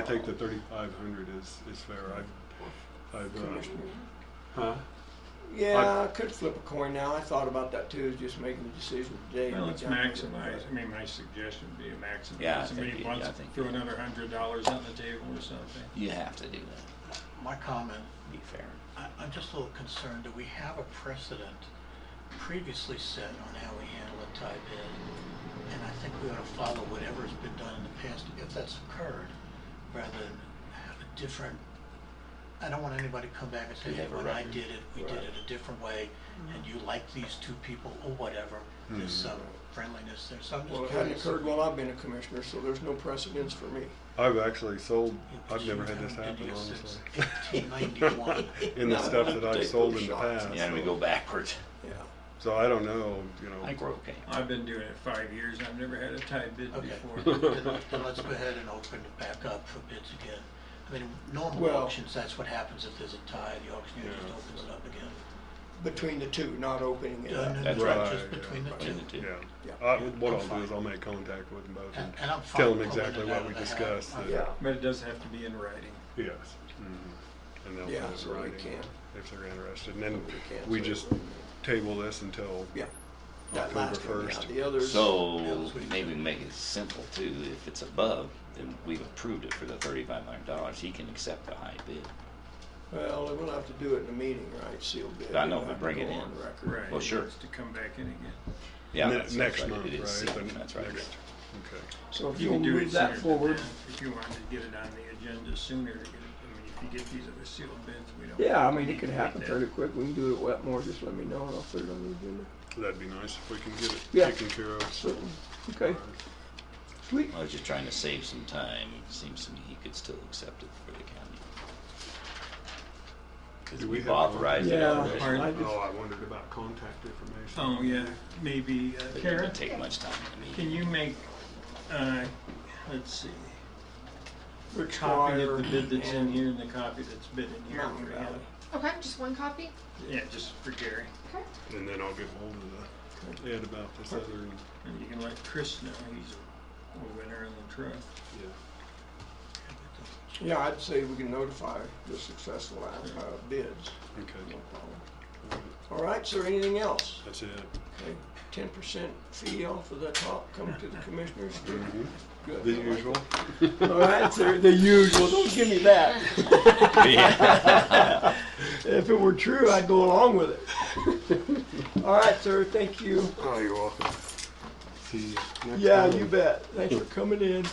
I think the thirty-five hundred is, is fair. I've, I've, uh, huh? Yeah, I could flip a coin now. I thought about that too, just making the decision today. Well, it's Which I'm- maximize, I mean, my suggestion would be to maximize. Yeah, I think Somebody you- wants yeah, I to think throw you- another hundred dollars on the table or something. You have to do that, My comment, be fair. I, I'm just a little concerned that we have a precedent previously set on how we handle a tie bid. And I think we ought to follow whatever's been done in the past if that's occurred, rather than have a different, I don't want anybody to come back and say, We hey, have a when I record." did it, we did it a different way, and you like these two people or whatever. There's some Mm-hmm. friendliness there, so I'm Well, it just hadn't curious. occurred while I've been a commissioner, so there's no precedence for me. I've actually sold, Yeah, but I've never you had this haven't happen, been here honestly. since 1891. In the No, stuff not that I've sold in the particularly past. shocked. Yeah, and we go backwards. Yeah. So I don't know, you I think know, we're okay. I've been doing it five years, I've never had a tie bid Okay, before. then then let's go ahead and open it back up for bids again. I mean, normal Well- auctions, that's what happens if there's a tie, the auctioneer just opens it up again. Between the two, not opening it No, up. no, That's no, right, Just yeah, between the Between the two. two. yeah. Yeah. I, what I'm I'll do fine. is I'll make contact with them both and And and I'm fine. tell them pulling it exactly out what of we the hat. discussed. that- Yeah. But it does have to be in writing. Yes. Mm-hmm. And they'll Yeah, put it so in we writing can. if they're interested. And then can, we so- just table this until, Yeah. That October last one, yeah, first. the others. So maybe we can make it simple too. If it's above, then we've approved it for the thirty-five hundred dollars. He can accept the high bid. Well, we'll have to do it in a meeting, right, sealed bid. I know, It'll but have to bring go it in. on record. Right. Well, sure. it's To come back in again. Yeah, Ne- that's- that's next right. month, It is right? sealed. The That's right. next- okay. So if You you'll can do it move that sooner than forward. If you wanted to get it on the agenda sooner, to get it- I mean, if you get these other sealed bids, we don't. Yeah, I mean, it need could to happen make fairly that. quick. We can do it at Wetmore. Just let me know and I'll put it on the agenda. That'd be nice if we can get Yeah. it taken care of. Certainly. Okay, sweet. I was just trying to save some time. It seems to me he could still accept it for the county. Because Do we we've have- authorized it Yeah. already. Pardon? I Oh, just, I wondered about contact information. Oh, yeah, maybe, uh, It Karen? didn't take much time to meet. Can you make, uh, let's see, we're copy of the bid that's in here and the copy that's bid in here Mountain for Valley. him? Okay, just one copy? Yeah, just for Gary, Okay. And then I'll get hold of the, Ed about this other, and you can let Chris know, he's a winner in the truck. yeah. Yeah, I'd say we can notify the successful out- uh, bids. Okay, All right, so anything else? that's it. Ten percent fee off of the top coming to the commissioners? Good. The usual. All right, so the usual, don't give me that. If it were true, I'd go along with it. All right, sir, thank you. Oh, you're welcome. See you next Yeah, time. you bet. Thanks for coming in.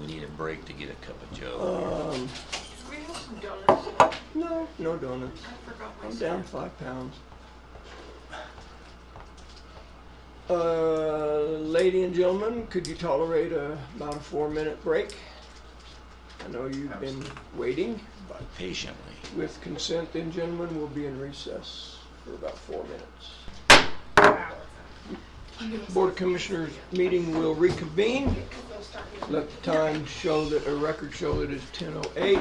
We need a break to get a cup of joe. Um, We have some donuts. no, no donuts. I forgot my I'm down five pounds. Uh, lady and gentlemen, could you tolerate a, about a four-minute break? I know you've been waiting, but Patiently. with consent then gentlemen, we'll be in recess for about four minutes. Board of Commissioners meeting will reconvene. Let the time show that, a record show that it's ten oh eight.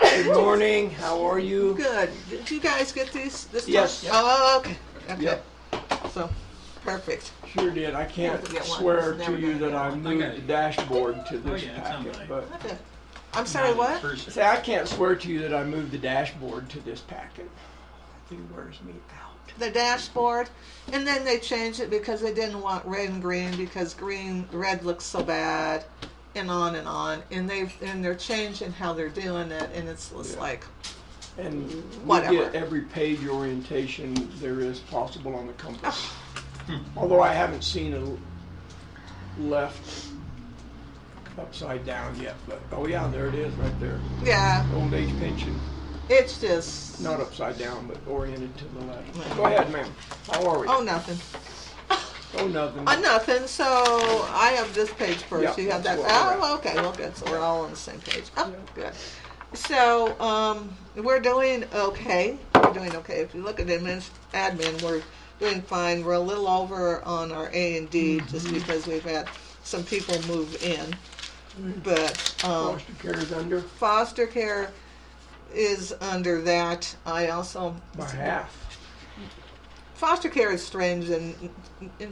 Good morning, how are you? Good. Did you guys get these? This time? Yes. Oh, okay. Okay. Yep. So, perfect. Sure did. I can't Never get one. swear Never to you gonna that get I one. moved Okay. the dashboard to Oh, this yeah, it's on packet, mine. but, Okay. I'm sorry. Not in What? person. see, I can't swear to you that I moved the dashboard to this packet. It wears me out. The dashboard, and then they changed it because they didn't want red and green because green red looks so bad, and on and on. And they and they're changing how they're doing it, and it's, it's Yeah. like And we get Whatever. every page orientation there is possible on the compass. Ah. Hmm. Although I haven't seen a left upside down yet, but, oh yeah, there it is, right there. yeah, Old age pension, it's just not upside down, but oriented to the left. Go ahead, ma'am. How are we? oh nothing. Oh, nothing. Uh, nothing. So I have this page first. Yeah, you have that. that's what we're Oh, okay. Well, good. So we're all on the same page. Oh, good. So um, we're doing okay. We're doing okay. If you look at admin, admin, we're doing fine. We're a little over on our A and D Mm-hmm. just because we've had some people move in, Mm-hmm. but um, Foster care is under foster care is under that. I also by half. foster care is strange and. and